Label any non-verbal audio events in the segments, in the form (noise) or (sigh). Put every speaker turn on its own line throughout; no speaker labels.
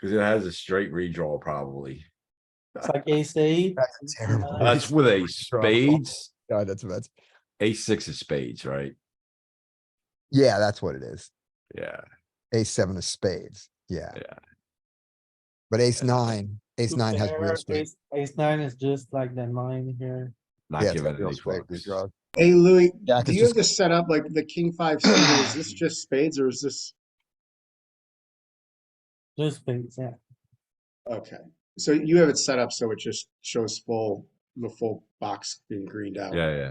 Cause it has a straight redraw (laughs) probably.
It's like ace eight.
That's terrible.
Uh,
That's with a spades,
God, that's a bet.
a six of spades, right?
Yeah, that's what it is.
Yeah,
Ace seven of spades. Yeah.
Yeah.
But ace nine, ace
two
nine has real
pair,
straight.
ace- Ace nine is just like the nine here.
not
Yeah, it's
giving
got
it
real
any
straight
fucks.
redraw.
Hey Louis,
Jack
do
is
you have
just,
this set up like the king five suited? Is this just spades or is this,
Just spades, yeah.
okay. So you have it set up so it just shows full, the full box being greened out.
Yeah, yeah.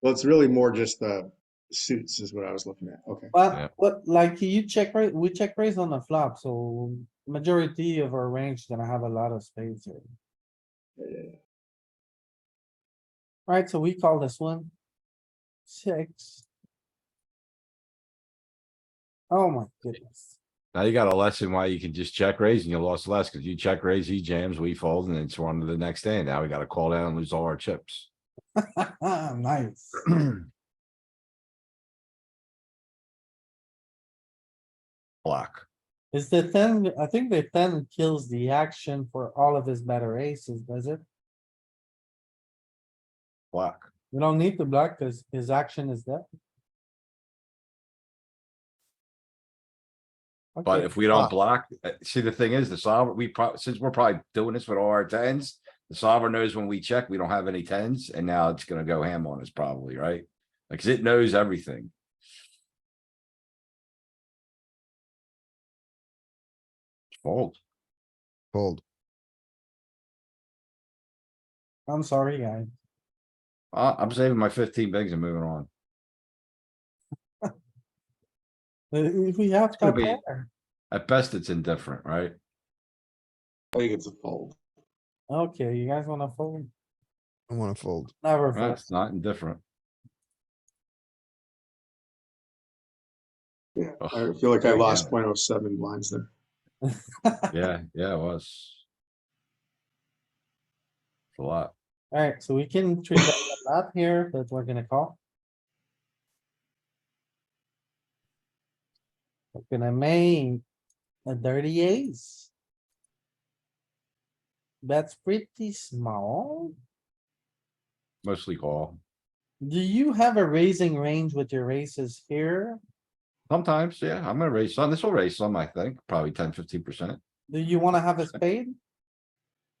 Well, it's really more just the suits is what I was looking at. Okay.
Yeah.
But what, like you check raise, we check raise on the flop, so majority of our range is gonna have a lot of spades here. Right, so we call this one. Six. Oh my goodness. (laughs)
Now you got a lesson why you can just check raise and you lost less because you check raise, he jams, we fold and it's one to the next day. Now we gotta call down and lose all our chips.
Nice.
(clears throat) Block.
Is the ten, I think the ten kills the action for all of his better aces, does it?
Block.
We don't need to block cuz his action is there.
But
Okay,
if we don't
block.
block, uh, see, the thing is, the solver, we probably, since we're probably doing this with all our tens. The solver knows when we check, we don't have any tens, and now it's gonna go ham on us probably, right? Like, 'cause it knows everything. Fold.
fold.
I'm sorry, guy.
Uh, I'm saving my fifteen bigs and moving on.
Uh, If we have
gonna
top
be-
pair,
At best, it's indifferent, right?
I think it's a fold.
okay, you guys wanna fold?
I wanna fold.
Never fold.
That's not indifferent.
Yeah, I
Ugh,
feel like I
there you
lost
have
0.07 blinds there.
Yeah, yeah, it was. It's a lot.
Alright, so we can treat that a lot here, but we're gonna call. We're gonna make a dirty ace. That's pretty small.
Mostly call.
Do you have a raising range with your aces here?
Sometimes, yeah, I'm gonna raise some. This will raise some, I think, probably 10, 15 percent.
Do you wanna have a spade?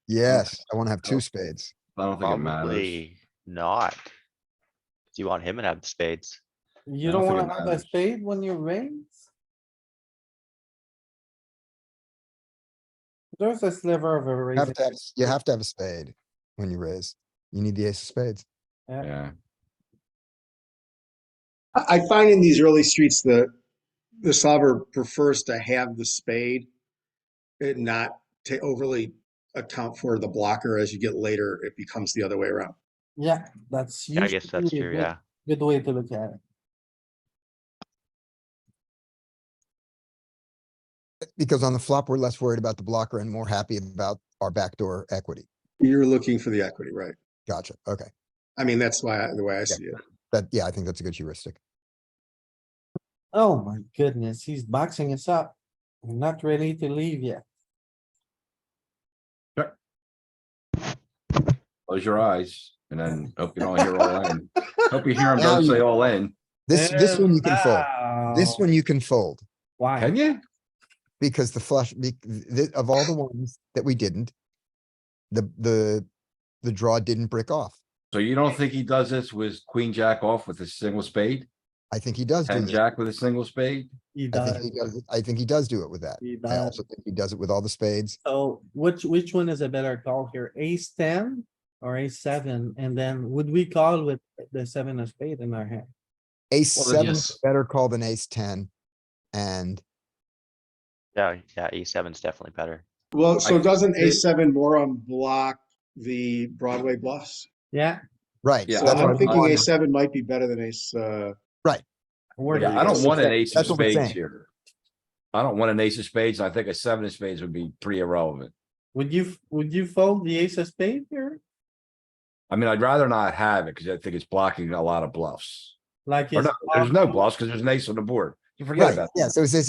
Yes, I wanna have two
Oh.
spades.
I don't think it matters.
Probably not. Do you want him to have spades?
You
I
don't
don't think
wanna
it
have a
matters.
spade when you raise? There's a sliver of a
You have
raising.
to have, you have to have a spade when you raise. You need the ace of spades.
Yeah,
I, I find in these early streets, the, the solver prefers to have the spade and not to overly account for the blocker. As you get later, it becomes the other way around.
Yeah, that's.
Yeah, I
usually
guess that's
a
true,
good-
yeah.
Good way to look at it.
Because on the flop, we're less worried about the blocker and more happy about our backdoor equity.
You're looking for the equity, right?
Gotcha. Okay.
I mean, that's why, I- the way I see it.
That, yeah, I think that's a good heuristic.
Oh my goodness, he's boxing us up. We're not ready to leave yet.
close your eyes and then hope you don't hear all in. Hope you hear him don't say all in.
This, this one you can fold. This
Wow.
one you can fold
Why?
Can you?
because the flush, be- th- of all the ones that we didn't, the, the, the draw didn't brick off.
So you don't think he does this with queen jack off with a single spade?
I think he does do
Ten
this.
jack with a single spade?
He
I think he
does,
does, it- I think he does do it with that.
he
I
does.
also think he does it with all the spades.
So which, which one is a better call here? Ace ten or ace seven? And then would we call with the seven of spade in our hand?
Ace
Well,
seven is
yes.
a better call than ace ten. And
Yeah, yeah, E seven's definitely better.
Well, so
I-
doesn't
it-
A7 Morum block the Broadway bluffs?
Yeah,
right. so
Yeah,
So
that's what
I'm
I'm
thinking
wondering.
A7 might be better than Ace, uh,
we're,
Yeah, I don't
That's
want an
what-
ace of
that's what we're
spades
saying.
here. I don't want an ace of spades. I think a seven of spades would be pretty irrelevant.
would you, would you fold the ace of spade here?
I mean, I'd rather not have it because I think it's blocking a lot of bluffs.
Like.
Or
it's
no, there's no
off-
bluffs because there's an ace on the board. You forget
Right,
about that.
yeah, so it's, it's